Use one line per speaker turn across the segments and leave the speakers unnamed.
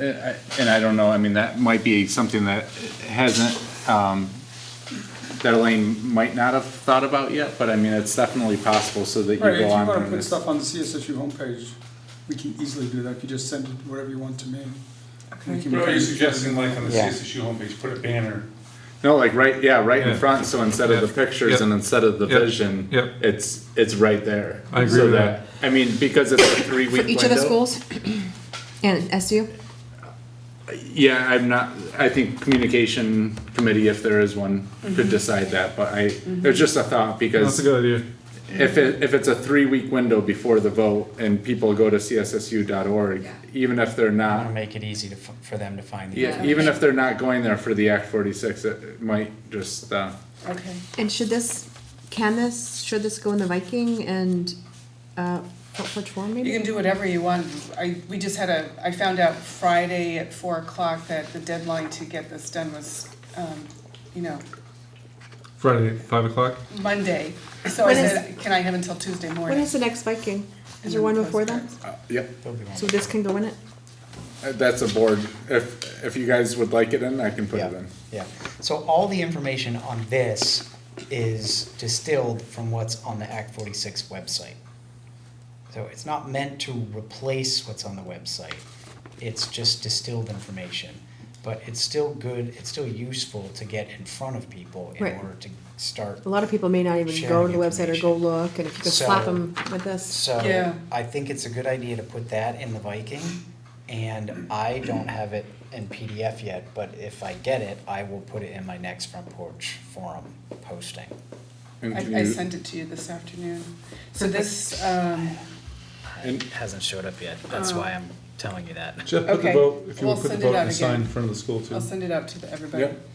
Uh, I- And I don't know, I mean, that might be something that hasn't, um, that Elaine might not have thought about yet, but I mean, it's definitely possible so that you
Right, if you
go on.
wanna
from
put
this-
stuff on the CSSU homepage, we can easily do that, if you just send it wherever you want to me. We can-
What are you suggesting, like on the
Yeah.
CSSU homepage, put a banner?
No, like right, yeah, right in
Yeah.
front, so instead of the
Yeah.
pictures
Yep.
and instead of the
Yep.
vision,
Yep.
it's, it's right there.
I agree
So
with that.
I mean, because it's a three-week window.
Each of the schools and SU?
Yeah, I'm not, I think communication committee, if there is one,
Mm-hmm.
could decide that, but I, it's just a thought
That's
because
a good idea.
If it, if it's a three-week window before the vote and people go to cssu.org, even if they're
I want to
not,
make it easy to, f- for them to find the.
yeah, even if they're not going there for the Act forty-six, it- it might just, uh,
Okay.
And should this, can this, should this go in the Viking and, uh, what- which form
You
maybe?
can do whatever you want. I, we just had a, I found out Friday at four o'clock that the deadline to get this done was, um, you know,
Friday, five o'clock.
Monday. So I
When is-
said, can I have until Tuesday
When
morning?
is the next Viking? Is
And
there one
then
before that?
postcards.
uh, yep,
There'll be one.
So this can go in it?
uh, that's a board. If, if you guys would like it in, I can put it
Yeah,
in.
yeah. So all the information on this is distilled from what's on the Act forty-six website. So it's not meant to replace what's on the website. It's just distilled information. But it's still good, it's still useful to get in front of people in
Right.
order to start.
A lot of people may not even go to the website or go look, and if you could slap
So-
them with this.
So
Yeah.
I think it's a good idea to put that in the Viking. And I don't have it in PDF yet, but if I get it, I will put it in my next front porch forum posting.
And can
I, I
you-
sent it to you this afternoon. So this, um,
It hasn't showed up yet, that's why I'm telling you that.
Jeff, put the
Okay.
vote, if you
We'll
would put the
send it
vote
out
and sign
again.
in front of the school too.
I'll send it out to the- everybody.
Yep.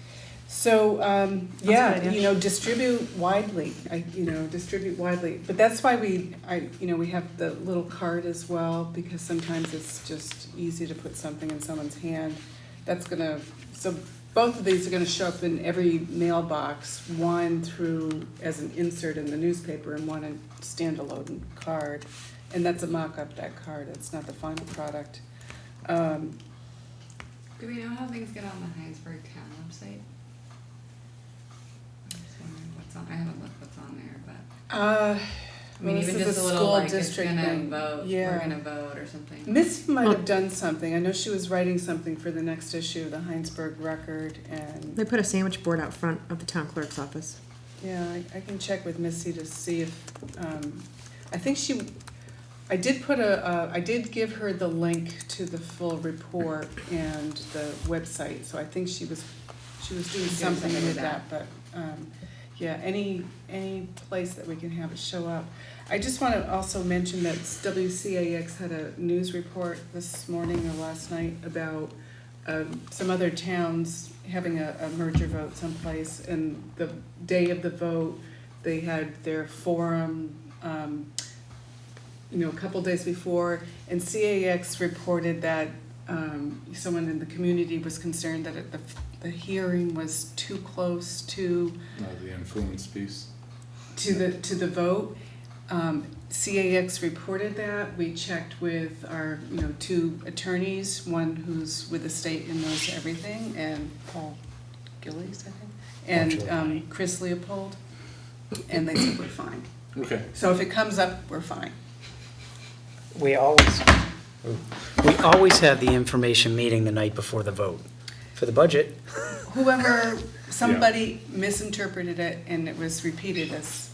So, um,
a good
yeah,
idea.
you know, distribute widely, I, you know, distribute widely. But that's why we, I, you know, we have the little card as well, because sometimes it's just easy to put something in someone's hand. That's gonna, so both of these are gonna show up in every mailbox, one through, as an insert in the newspaper and one in standalone card. And that's a mock-up, that card, it's not the final product. Um,
Do we know how things get on the Heinsberg Town website? I'm just wondering what's on, I haven't looked what's on there, but,
Uh,
I mean,
well,
even
this is
just a little
school
like, it's
district
gonna
thing.
vote,
Yeah.
we're gonna vote or something.
Missy might have done something. I know she was writing something for the next issue, the Heinsberg Record,
They
and
put a sandwich board out front of the town clerk's office.
yeah, I, I can check with Missy to see if. Um, I think she. I did put a. Uh, I did give her the link to the full report and the website, so I think she was. She was doing
Doing
something
something
with
with
that, but um, yeah, any any place that we can have it show up. I just want to also mention that WCAX had a news report this morning or last night about uh, some other towns having a, a merger vote someplace, and the day of the vote, they had their forum, um, you know, a couple days before, and CAX reported that um, someone in the community was concerned that it, the, the hearing was too close to
Uh, The influence piece.
to the, to the vote. Um, CAX reported that, we checked with our, you know, two attorneys, one who's with the state and knows everything, and Paul Gillies, I think, and, um, Chris Leopold, and they said we're fine.
Okay.
So if it comes up, we're fine.
We always, we always have the information meeting the night before the vote for the budget.
Whoever, somebody misinterpreted it and it was repeated as,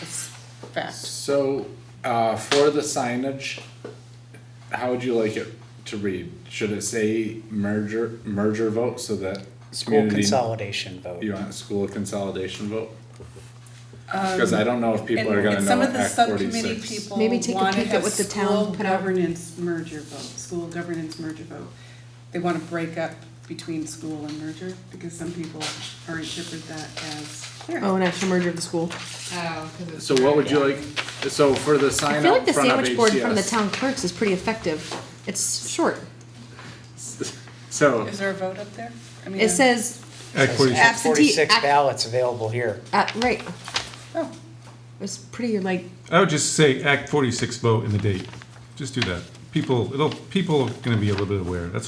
as fact.
So, uh, for the signage, how would you like it to read? Should it say merger, merger vote so that?
School
community-
consolidation vote.
You want a school consolidation vote? Because I don't know if people are
Um, And-
gonna
and some
know
of the
Act
subcommittee
forty-six.
people
Maybe take a
wanna
peek at
have
what the town
school
put out.
governance merger vote, school governance merger vote. They wanna break up between school and merger, because some people are interpret that as
Oh, an actual merger of the school.
Oh, 'cause it's.
So what would you
Yeah.
like, so for the sign
I
out
feel like the
front of
sandwich board from the
HCS.
town clerk's is pretty effective. It's short.
So,
Is there a vote up there? I mean,
It says,
Act forty-six.
Act Forty-six
Absentee-
ballots available here.
uh, right,
Oh,
it's pretty like,
I would just say Act forty-six vote and the date. Just do that. People, it'll, people are gonna be a little bit aware. That's